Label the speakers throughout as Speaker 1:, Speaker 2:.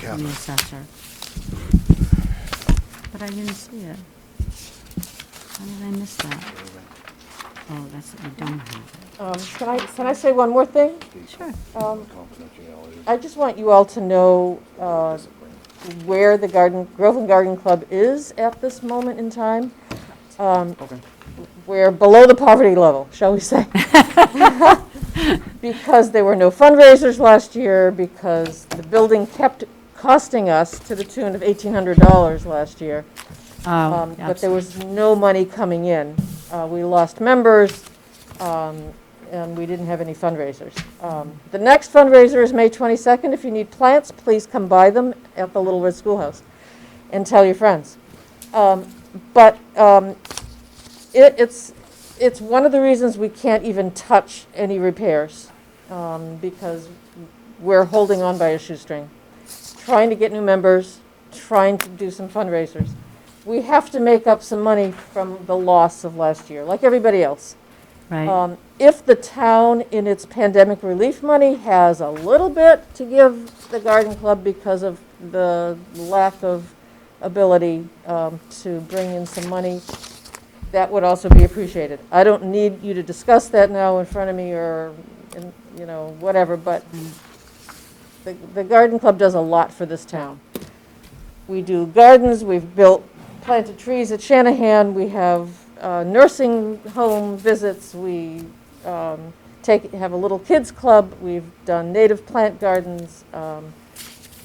Speaker 1: from the
Speaker 2: Catherine.
Speaker 1: assessor. But I didn't see it. How did I miss that? Oh, that's, I don't have
Speaker 3: Um, Can I, can I say one more thing?
Speaker 1: it. Sure.
Speaker 3: Um,
Speaker 2: Confidentiality.
Speaker 3: I just want you all to know uh, where the garden, Groveland Garden Club is at this moment in time. Um,
Speaker 2: Okay.
Speaker 3: We're below the poverty level, shall we say? Because there were no fundraisers last year, because the building kept costing us to the tune of $1,800 last year. Um,
Speaker 1: Oh,
Speaker 3: But there was no money coming in. Uh, We lost members, um, and we didn't have any fundraisers. Um, The next fundraiser is May 22nd. If you need plants, please come buy them at the Little Red Schoolhouse and tell your friends. Um, But um, it- it's, it's one of the reasons we can't even touch any repairs, um, because we're holding on by a shoestring, trying to get new members, trying to do some fundraisers we have to make up some money from the loss of last year, like everybody else.
Speaker 1: Right,
Speaker 3: Um, If the town in its pandemic relief money has a little bit to give the garden club because of the lack of ability um, to bring in some money, that would also be appreciated. I don't need you to discuss that now in front of me or, in- you know, whatever, but the, the garden club does a lot for this town. We do gardens, we've built, planted trees at Shanahan, we have uh, nursing home visits, we um, take, have a little kids club, we've done native plant gardens. um,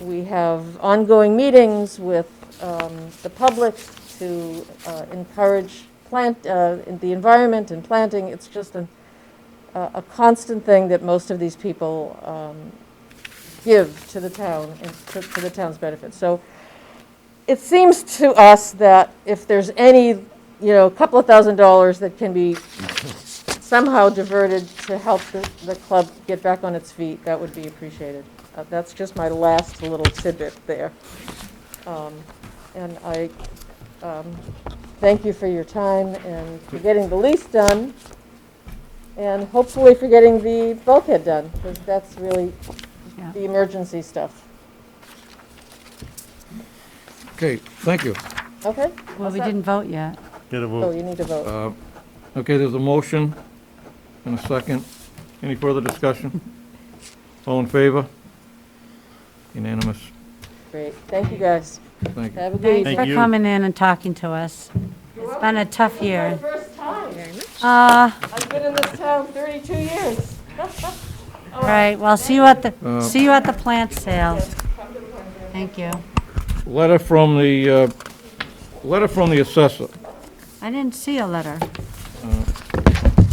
Speaker 3: We have ongoing meetings with um, the public to uh, encourage plant, uh, the environment and planting. It's just an- uh, a, a constant thing that most of these people um, give to the town and to, to the town's benefit. So it seems to us that if there's any, you know, couple of thousand dollars that can be somehow diverted to help the, the club get back on its feet, that would be appreciated. Uh, that's just my last little tidbit there. Um, and I um, thank you for your time and for getting the lease done. And hopefully for getting the bulkhead done, because that's really
Speaker 1: yeah.
Speaker 3: the emergency stuff.
Speaker 4: Okay, thank you.
Speaker 3: Okay?
Speaker 1: Well,
Speaker 3: How's
Speaker 1: we
Speaker 3: that?
Speaker 1: didn't vote yet.
Speaker 5: Get a
Speaker 3: Oh,
Speaker 5: vote.
Speaker 3: you need to vote.
Speaker 4: Uh, Okay, there's a motion and a second. Any further discussion? All in favor? Unanimous.
Speaker 3: Great. Thank you, guys.
Speaker 4: Thank you.
Speaker 3: Have a good
Speaker 1: Thanks
Speaker 3: evening.
Speaker 1: for
Speaker 5: you.
Speaker 1: coming in and talking to us. It's been a tough
Speaker 3: My
Speaker 1: year.
Speaker 3: first time.
Speaker 1: Uh,
Speaker 3: I've been in this town 32 years.
Speaker 1: all right, well, see you at the,
Speaker 4: Uh,
Speaker 1: see you at the plant sale. Thank you.
Speaker 4: Letter from the, uh, letter from the assessor.
Speaker 1: I didn't see a letter.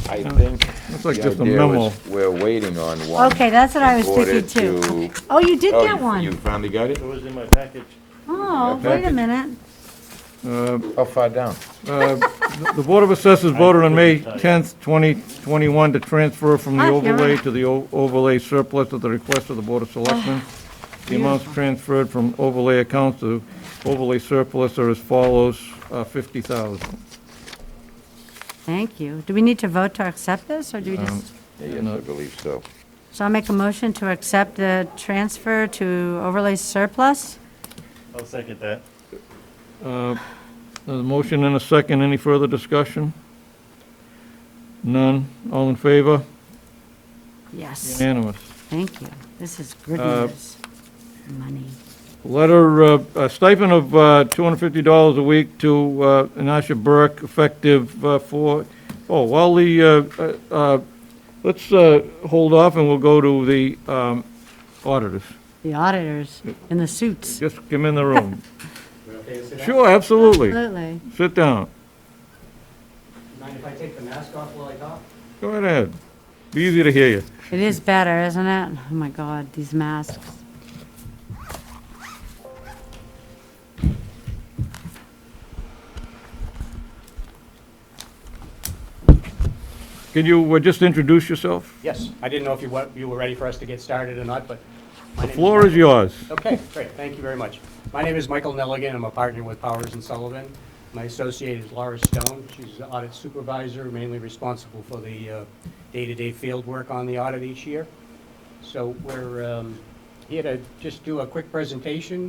Speaker 6: I think
Speaker 4: It's
Speaker 6: the
Speaker 4: like just a
Speaker 6: idea
Speaker 4: memo.
Speaker 6: was, we're waiting on one.
Speaker 1: Okay, that's what I was
Speaker 6: in order
Speaker 1: thinking too.
Speaker 6: to-
Speaker 1: Oh, you did
Speaker 6: Oh,
Speaker 1: get
Speaker 6: you- You
Speaker 1: one.
Speaker 6: finally got it?
Speaker 5: It was in my package.
Speaker 1: Oh, wait a minute.
Speaker 4: Uh,
Speaker 6: How Oh, far down?
Speaker 4: uh, The the Board of Assessors voted on May 10th, 2021 to transfer from the
Speaker 1: Ah, you're
Speaker 4: overlay
Speaker 1: right.
Speaker 4: to the o- overlay surplus at the request of the Board of Selectmen. The amounts transferred from overlay accounts to overlay surplus are as follows, uh, 50,000.
Speaker 1: Thank you. Do we need to vote to accept this, or do we just?
Speaker 6: Yes, I
Speaker 4: No.
Speaker 6: believe so.
Speaker 1: So I'll make a motion to accept the transfer to overlay surplus.
Speaker 5: I'll second that.
Speaker 4: There's a motion and a second. Any further discussion? None. All in favor?
Speaker 1: Yes,
Speaker 4: Unanimous.
Speaker 1: thank you. This is good
Speaker 4: Uh,
Speaker 1: news. Money.
Speaker 4: Letter, uh, a stipend of uh, $250 a week to uh, Anasha Burke, effective uh, for, oh, while the, uh, uh, uh, let's uh, hold off and we'll go to the um, auditors.
Speaker 1: The auditors in the suits.
Speaker 4: Just come in the room. Sure, absolutely.
Speaker 1: Absolutely.
Speaker 4: Sit down.
Speaker 7: Mind if I take the mask off while I talk?
Speaker 4: Go right ahead. Be easy to hear you.
Speaker 1: It is better, isn't it? Oh my God, these masks.
Speaker 4: Can you uh, just introduce yourself?
Speaker 7: Yes, I didn't know if you were, you were ready for us to get started or not, but. my
Speaker 4: The
Speaker 7: name
Speaker 4: floor is yours.
Speaker 7: Okay, great, thank you very much. My name is Michael Nelligan, I'm a partner with Powers and Sullivan. My associate is Laura Stone, she's the audit supervisor, mainly responsible for the uh, day-to-day field work on the audit each year. So we're um, He had to just do a quick presentation